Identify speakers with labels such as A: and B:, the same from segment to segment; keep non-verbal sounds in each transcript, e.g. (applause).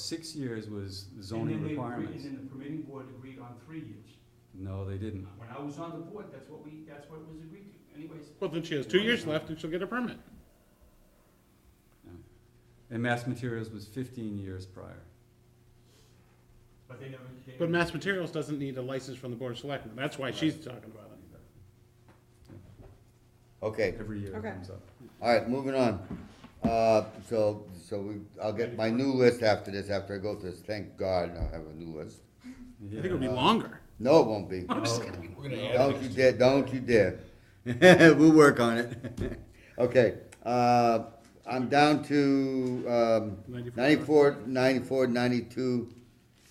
A: six years was
B: And then
A: zoning
B: they agreed-
A: requirements.
B: And then the permitting board agreed on three years.
A: No, they didn't.
B: When I was on the board, that's what we, that's what was agreed to anyways.
C: Well, then she has two years left and she'll get a permit.
A: And Mass Materials was fifteen years prior.
B: But they never. they
C: But
B: never-
C: Mass Materials doesn't need a license from the Board of Selectmen. That's why she's talking about it.
D: Okay,
A: Every year it
E: Okay.
A: comes up.
D: all right, moving on. Uh, so, so we, I'll get my new list after this, after I go through this, thank God I'll have a new list.
C: I think it'll be longer.
D: No, it won't be.
F: We're gonna add
D: Don't you
F: things.
D: dare, don't you dare. (laughs) We'll work on it. (laughs) Okay, uh, I'm down to, um,
C: 94.
D: ninety-four, ninety-four, ninety-two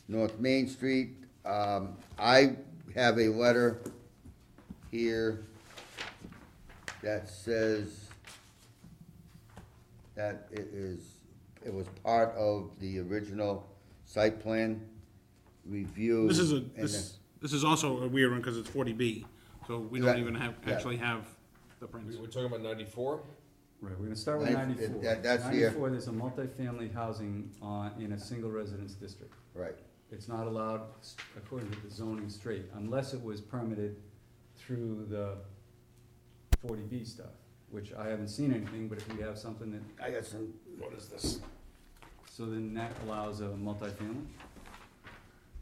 D: North Main Street. Um, I have a letter here that says that it is, it was part of the original site plan review.
C: This is a,
D: and
C: this, this is also a weird one because it's forty B, so we don't
D: Right.
C: even have,
D: Yeah.
C: actually have the prints.
F: We- We're talking about ninety-four?
A: Right, we're gonna start with
D: Ninety-
A: ninety-four.
D: that- that's uh, here.
A: Ninety-four, there's a multifamily housing on, in a single residence district.
D: the- Right.
A: It's not allowed s- according to the zoning straight, unless it was permitted through the forty B stuff, which I haven't seen anything, but if we have something that,
D: I got some.
F: What is this?
A: so then that allows a multifamily?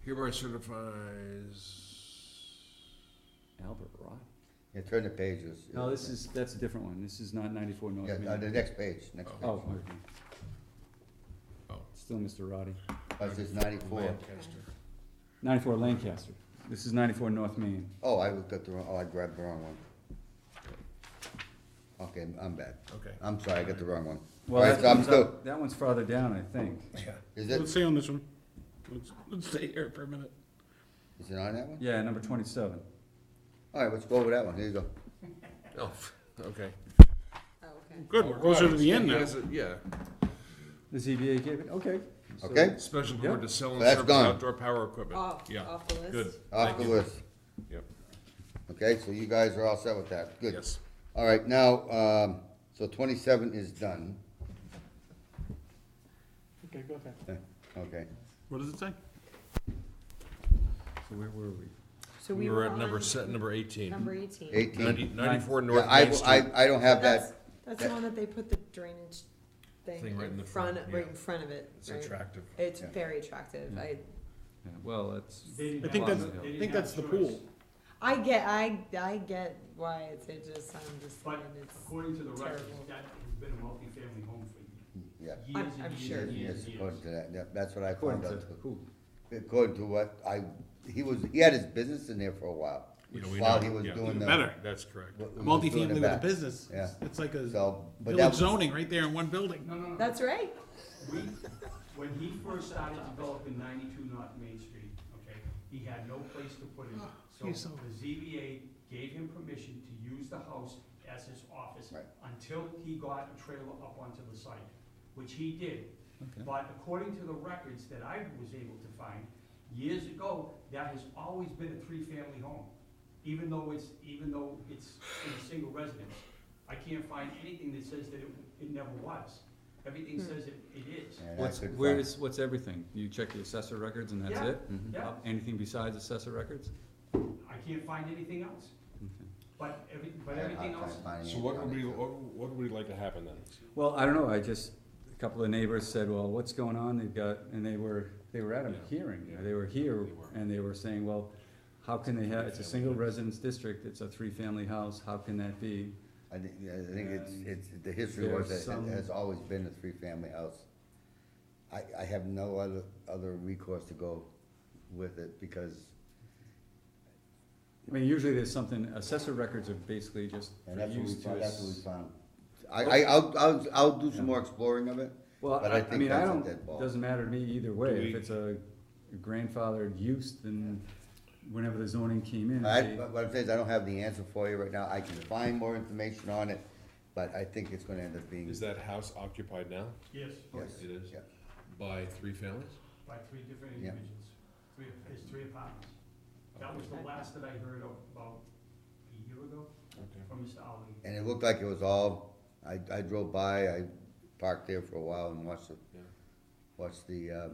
F: Hereby certifies.
A: Albert Rock?
D: Yeah, turn the pages.
A: No, this is, that's a different one, this is not ninety-four North
D: Yeah,
A: Main.
D: uh, the next page, next page.
A: Oh, okay.
F: Oh.
A: Still Mr. Roddy.
D: Oh, This is ninety-four.
F: Lancaster.
A: Ninety-four Lancaster, this is ninety-four North Main.
D: Oh, I looked at the wrong, oh, I grabbed the wrong one. Okay, I'm bad.
F: Okay.
D: I'm sorry, I got the wrong one.
A: Well,
D: Alright,
A: that
D: so I'm
A: one's
D: still,
A: up- That one's farther down, I think.
D: is it,
C: Let's stay on this one. Let's, let's stay here for a minute.
D: is it on that one?
A: Yeah, number twenty-seven.
D: Alright, let's go over that one, here you go.
F: Oh, (laughs) okay.
E: Oh, okay.
C: Good, we're closer to the end now.
F: Yes, it- Yeah,
A: The ZBA gave it, okay. So-
D: Okay,
F: special
A: Yeah.
F: board to sell and
D: So that's
F: service
D: gone.
F: outdoor power equipment.
E: Off,
F: Yeah.
E: off the list.
F: Good.
D: off the
F: Thank you.
D: list.
F: Yep,
D: Okay, so you guys are all set with that, good.
F: yes.
D: Alright, now, um, so twenty-seven is done,
C: Okay, go ahead.
D: okay.
C: What does it say?
A: So where were we?
E: So we
F: We're
E: were
F: at number
E: on
F: set, number eighteen.
E: number eighteen.
F: Ninety,
D: Eighteen.
F: ninety-four
D: Yeah,
F: North
D: I,
F: Main
D: will-
F: Street.
D: I, I don't have
E: That's,
D: that,
E: that's the one that they put the drainage thing
F: Thing right in
E: in
F: the
E: front,
F: front,
E: right
F: yeah.
E: in front of it,
F: It's
E: right?
F: attractive. Mm-hmm.
E: It's
D: Yeah.
E: very attractive. I,
A: Yeah, well, that's,
B: They didn't
C: I think
B: have-
C: that's,
B: they
C: I
B: didn't
C: think
B: have
C: that's the
B: choice.
C: pool.
E: I get, I, I get why it's, it just, I'm just
B: But
E: saying it's,
B: according to the records,
E: terrible.
B: that has been a multifamily home for
D: yeah,
B: years
E: I'm-
B: and
E: I'm
B: years
E: sure.
B: and
D: yes,
B: years and years.
D: according to that, yeah, that's what I
A: according
D: found
A: to
D: out too.
A: who?
D: According to what I, he was, he had his business in there for a while,
F: You know, we
D: while
F: know-
D: he was
F: yeah,
D: doing the.
C: Better.
F: That's correct.
D: what- what he was doing
C: Multifamily
D: in
C: with
D: back.
C: a business.
D: Yeah.
C: It's like a
D: So, but that
C: village
D: was-
C: zoning right there in one building.
B: No, no, no.
E: that's right.
B: We, when he first started developing ninety-two North Main Street, okay, he had no place to put it.
C: he's
B: So
C: so-
B: the ZBA gave him permission to use the house as his office
D: Right.
B: until he got a trailer up onto the site, which he did.
A: Okay.
B: But according to the records that I was able to find, years ago, that has always been a three-family home, even though it's, even though it's in a single residence. I can't find anything that says that it, it never was. Everything says it, it is.
D: And I
A: What's,
D: couldn't
A: where
D: find-
A: is, what's everything? You check the assessor records and that's
B: Yeah.
A: it?
D: Mm-hmm.
B: Yeah,
A: Uh, Anything besides assessor records?
B: I can't find anything else,
D: Mm-hmm.
A: Okay.
B: but every,
D: I
B: but
D: had a
B: everything
D: hard
B: else,
D: time finding
F: So
D: it
F: what
D: on
F: would
D: it, too.
F: we, what what would we like to happen then?
A: Well, I don't know, I just, a couple of neighbors said, well, what's going on? They've got, and they were, they were at a
F: Yeah.
A: hearing,
F: Yeah.
A: they were here,
F: They were.
A: and they were saying, well, how can they have, it's a
F: Three-family
A: single
F: house.
A: residence district, it's a three-family house, how can that be?
D: I think, yeah, I think it's,
A: And
D: it's, the history was
A: there's
D: that
A: some-
D: it has always been a three-family house. I, I have no other, other recourse to go with it, because,
A: I mean, usually there's something, assessor records are basically just
D: and that's what we
A: used to.
D: found, that's what we
A: ass-
D: found. I, I, I'll, I'll, I'll do some more exploring of it,
A: Well,
D: But I
A: I, I
D: think
A: mean, I
D: that's a
A: don't,
D: dead ball.
A: doesn't matter to me either way, if
F: we-
A: it's a grandfathered use, then whenever the zoning came in,
D: I,
A: they-
D: but what I'm saying is, I don't have the answer for you right now, I can find more information on it, but I think it's gonna end up being,
F: Is that house occupied now?
B: yes,
D: yes,
F: It is?
D: yeah.
F: By three families?
B: by three different
D: Yeah.
B: individuals, three, there's three apartments. That was the last that I heard of about a year ago
F: Okay.
B: from Mr. Ali.
D: And it looked like it was all, I, I drove by, I parked there for a while and watched the,
F: Yeah.
D: watched the, um,